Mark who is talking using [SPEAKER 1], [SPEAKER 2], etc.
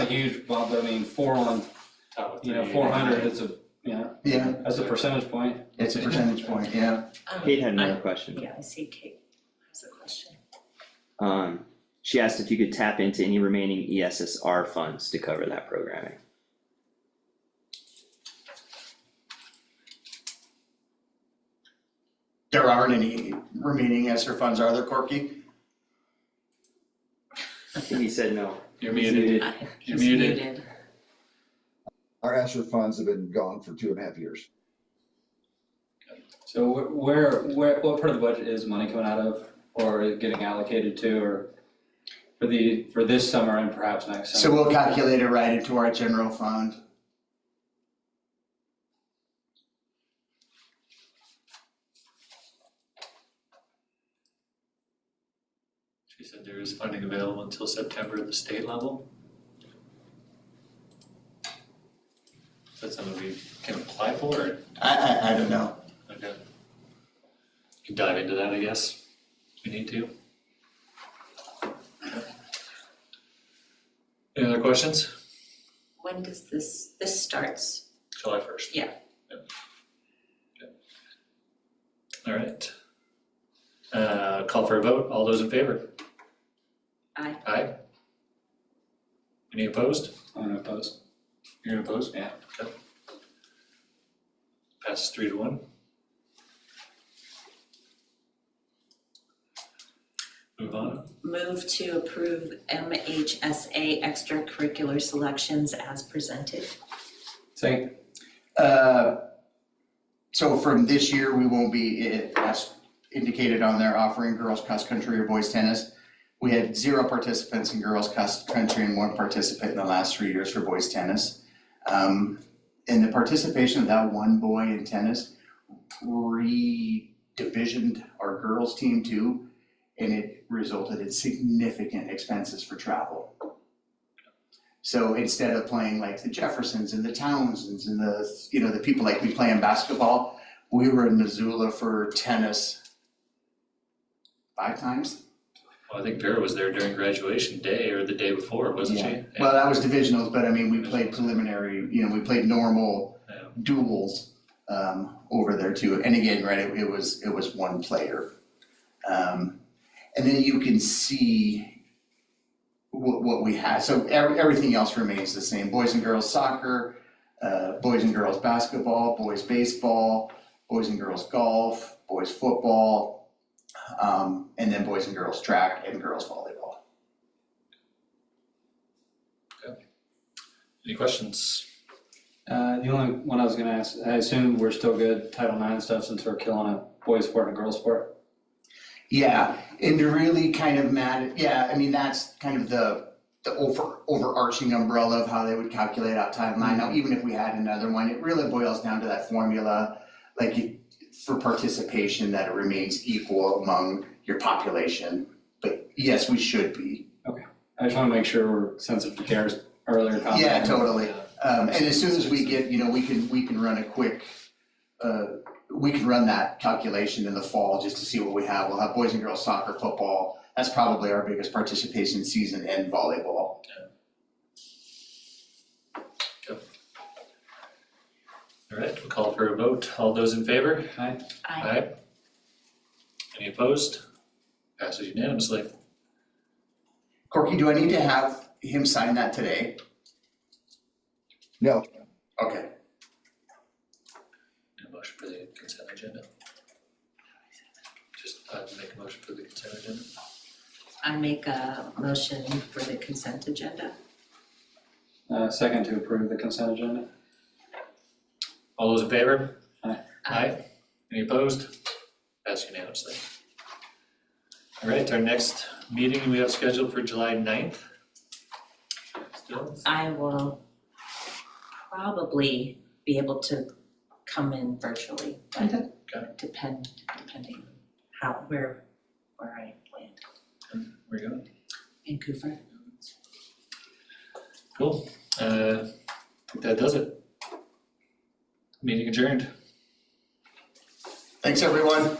[SPEAKER 1] a huge bump, I mean, four on, you know, four hundred is a, you know,
[SPEAKER 2] Yeah,
[SPEAKER 1] that's a percentage point.
[SPEAKER 2] it's a percentage point, yeah.
[SPEAKER 3] Um,
[SPEAKER 4] Kate had another
[SPEAKER 3] I-
[SPEAKER 4] question.
[SPEAKER 3] Yeah, I see Kate has a question.
[SPEAKER 4] Um, she asked if you could tap into any remaining E ESSR funds to cover that programming.
[SPEAKER 2] There aren't any remaining ESER funds, are there, Corky?
[SPEAKER 4] I think he said no.
[SPEAKER 5] You're muted,
[SPEAKER 3] I-
[SPEAKER 5] You're
[SPEAKER 3] he's
[SPEAKER 5] muted.
[SPEAKER 6] Our ESER funds have been gone for two and a half years.
[SPEAKER 1] So wh- where, where, what part of the budget is money coming out of or getting allocated to or for the, for this summer and perhaps next
[SPEAKER 2] So
[SPEAKER 1] summer?
[SPEAKER 2] we'll calculate it right into our general fund.
[SPEAKER 5] She said there is funding available until September at the state level. Is that something we can apply for or,
[SPEAKER 2] I, I, I don't know.
[SPEAKER 5] okay? Can dive into that, I guess, if we need to. Any other questions?
[SPEAKER 3] When does this, this starts?
[SPEAKER 5] July first.
[SPEAKER 3] Yeah.
[SPEAKER 5] All right. Uh, call for a vote. All those in favor?
[SPEAKER 3] Aye.
[SPEAKER 5] Aye. Any opposed?
[SPEAKER 1] I'm gonna oppose.
[SPEAKER 5] You're opposed?
[SPEAKER 1] Yeah.
[SPEAKER 5] Okay. Passes three to one. Move on.
[SPEAKER 3] Move to approve MHSA extracurricular selections as presented.
[SPEAKER 1] Second,
[SPEAKER 2] Uh, So from this year, we won't be, eh, as indicated on there, offering girls' cross country or boys' tennis. We had zero participants in girls' cross country and one participant in the last three years for boys' tennis. Um, And the participation of that one boy in tennis re-divisioned our girls' team too, and it resulted in significant expenses for travel. So instead of playing like the Jeffersons and the Townsends and the, you know, the people like we play in basketball, we were in Missoula for tennis five times.
[SPEAKER 5] Well, I think Vera was there during graduation day or the day before, wasn't she?
[SPEAKER 2] Yeah.
[SPEAKER 5] Yeah.
[SPEAKER 2] Well, that was divisionals, but I mean, we played preliminary, you know, we played normal
[SPEAKER 5] Yeah.
[SPEAKER 2] duels um, over there too. And again, right, it, it was, it was one player. Um, and then you can see what, what we had. So every, everything else remains the same. Boys and girls soccer, uh, boys and girls basketball, boys baseball, boys and girls golf, boys football, um, and then boys and girls track and girls volleyball.
[SPEAKER 5] Any questions?
[SPEAKER 1] uh, the only one I was gonna ask, I assume we're still good Title IX stuff since we're killing a boys sport and a girls sport.
[SPEAKER 2] Yeah, and to really kind of mad, yeah, I mean, that's kind of the, the over, overarching umbrella of how they would calculate out timeline. Now, even if we had another one, it really boils down to that formula, like you- for participation, that it remains equal among your population. But yes, we should be.
[SPEAKER 1] I just wanna make sure we're sensitive to Kara's earlier comment.
[SPEAKER 2] Yeah, totally.
[SPEAKER 5] Yeah.
[SPEAKER 2] Um, and as soon as we get, you know, we can, we can run a quick, uh, we can run that calculation in the fall just to see what we have. We'll have boys and girls soccer, football. That's probably our biggest participation season and volleyball.
[SPEAKER 5] All right, we'll call for a vote. All those in favor?
[SPEAKER 3] Aye.
[SPEAKER 5] Aye. Any opposed? Passes unanimously.
[SPEAKER 2] Corky, do I need to have him sign that today?
[SPEAKER 6] No,
[SPEAKER 2] Okay.
[SPEAKER 5] And motion for the consent agenda. Just uh, make a motion for the consent agenda.
[SPEAKER 3] I make a motion for the consent agenda.
[SPEAKER 1] Uh, second to approve the consent agenda.
[SPEAKER 5] All those in favor?
[SPEAKER 1] Aye.
[SPEAKER 3] Um,
[SPEAKER 5] Aye. Any opposed? Passed unanimously. All right, our next meeting we have scheduled for July 9th. Still?
[SPEAKER 3] I will probably be able to come in virtually,
[SPEAKER 2] Okay.
[SPEAKER 3] but depend, depending how, where, where I land.
[SPEAKER 5] We're going.
[SPEAKER 3] Vancouver?
[SPEAKER 5] Cool. Uh, I think that does it. Meeting adjourned.
[SPEAKER 2] Thanks, everyone.